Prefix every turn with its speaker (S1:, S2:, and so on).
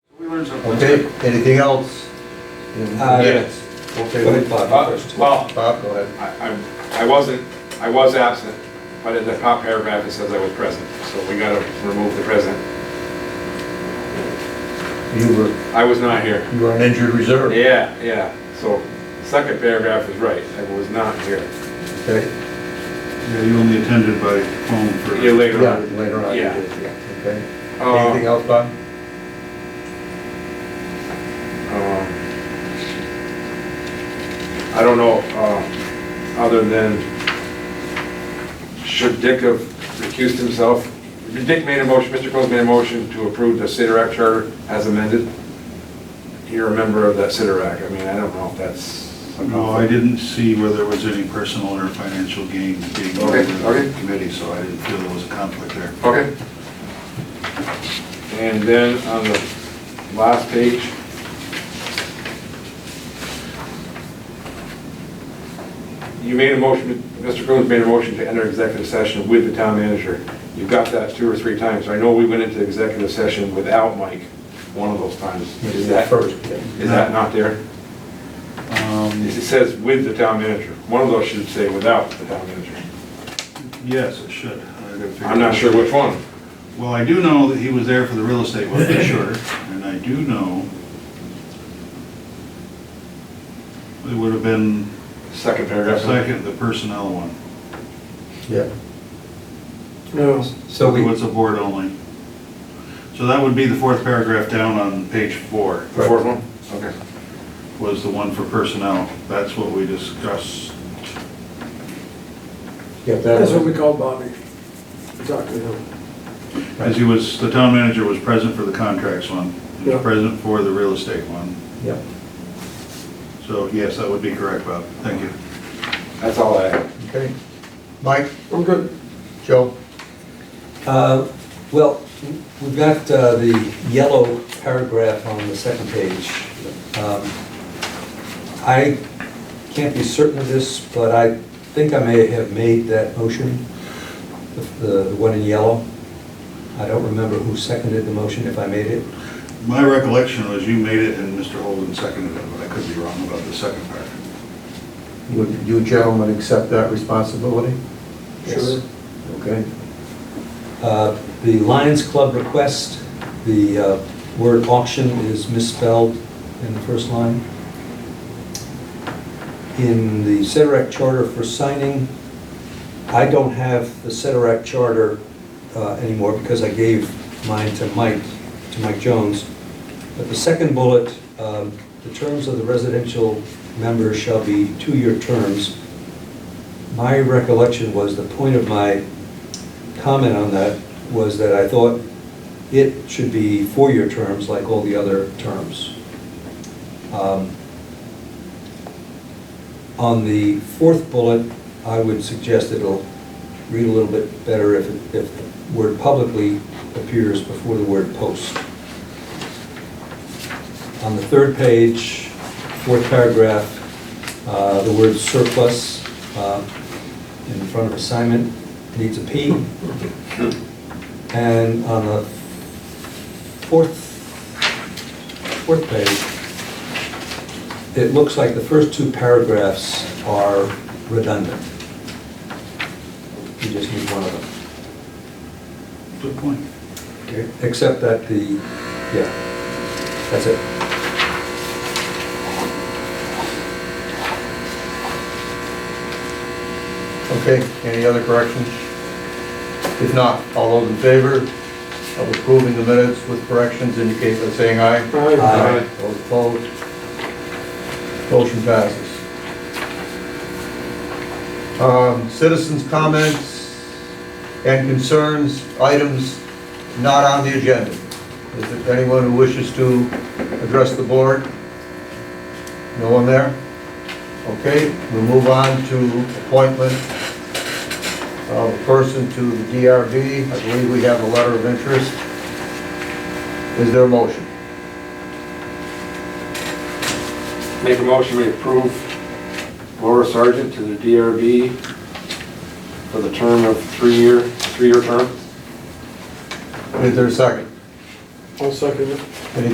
S1: members of.
S2: Okay, anything else?
S3: Uh,
S1: Yes.
S2: Okay, wait, Bob, you first.
S1: Well,
S2: Bob, go ahead.
S1: I, I- I wasn't, I was absent, but in the top paragraph it says I was present, so we gotta remove the present.
S2: You were,
S1: I was not here.
S2: you were on injured reserve,
S1: Yeah, yeah, so second paragraph is right, I was not here.
S2: okay?
S4: Yeah, you only attended by phone for.
S1: Yeah, later
S2: Yeah,
S1: on.
S2: later on. you
S1: Yeah.
S2: did, yeah, Um, Okay. Anything
S1: Uh,
S2: else, Bob?
S1: um, I don't know, uh, other than, should Dick have recused himself? Dick made a motion, Mr. Coles made a motion to approve the Act charter as amended. You're a member of that Act. I mean, I don't know if that's.
S4: No, I didn't see whether there was any personal or financial gain being
S1: Okay,
S4: made in
S1: okay.
S4: the committee, so I didn't feel there was a conflict there.
S1: Okay. And then on the last page. You made a motion, Mr. Coons made a motion to enter executive session with the town manager. You got that two or three times. I know we went into executive session without Mike, one of those times.
S2: You
S1: Is
S2: did
S1: that,
S2: that first, okay.
S1: is that not there? It
S4: Um,
S1: says with the town manager. One of those should say without the town manager.
S4: Yes, it should. I gotta figure
S1: I'm not
S4: out.
S1: sure which one.
S4: Well, I do know that he was there for the real estate one, for sure, and I do know it would have been
S1: Second
S4: the
S1: paragraph.
S4: second, the personnel one.
S2: Yeah.
S3: No.
S2: So we,
S4: What's a board only? So that would be the fourth paragraph down on page four.
S1: The fourth one? Okay.
S4: was the one for personnel. That's what we discussed.
S2: yeah, that
S3: That's what we
S2: was,
S3: called Bobby. We talked to him.
S4: As he was, the town manager was present for the contracts one, he
S3: Yeah.
S4: was present for the real estate one.
S2: yeah.
S4: So yes, that would be correct, Bob. Thank you.
S1: That's all I have.
S2: Okay. Mike,
S3: I'm good.
S2: Joe?
S5: Uh, Well, we've got uh, the yellow paragraph on the second page. Um, I can't be certain of this, but I think I may have made that motion, the- the the one in yellow. I don't remember who seconded the motion, if I made it.
S4: My recollection was you made it and Mr. Holden seconded it, but I could be wrong about the second part.
S2: Would you gentlemen accept that responsibility?
S5: Yes.
S2: Okay.
S5: Uh, The Lions Club request, the uh, word auction is misspelled in the first line. In the Sederac Charter for signing, I don't have the Sederac Charter uh, anymore because I gave mine to Mike, to Mike Jones. But the second bullet, um, the terms of the residential members shall be two-year terms. My recollection was, the point of my comment on that was that I thought it should be four-year terms like all the other terms. Um, On the fourth bullet, I would suggest it'll read a little bit better if, it- if the word publicly appears before the word post. On the third page, fourth paragraph, uh, the word surplus uh, in front of assignment needs a P. And on the fourth, fourth page, it looks like the first two paragraphs are redundant. You just need one of them.
S4: Good point.
S5: Except that the, yeah, that's it.
S2: Okay, any other corrections? If not, all those in favor of approving the minutes with corrections indicate by saying aye.
S3: Aye.
S2: Those opposed? Motion passes. Um, Citizens' comments and concerns, items not on the agenda. Is there anyone who wishes to address the board? No one there? Okay, we'll move on to appointment of a person to the DRB. I believe we have a letter of interest. Is there a motion?
S1: Make a motion, we approve Laura Sargent to the DRB for the term of three-year, three-year term.
S2: Is there a second?
S3: I'll second it.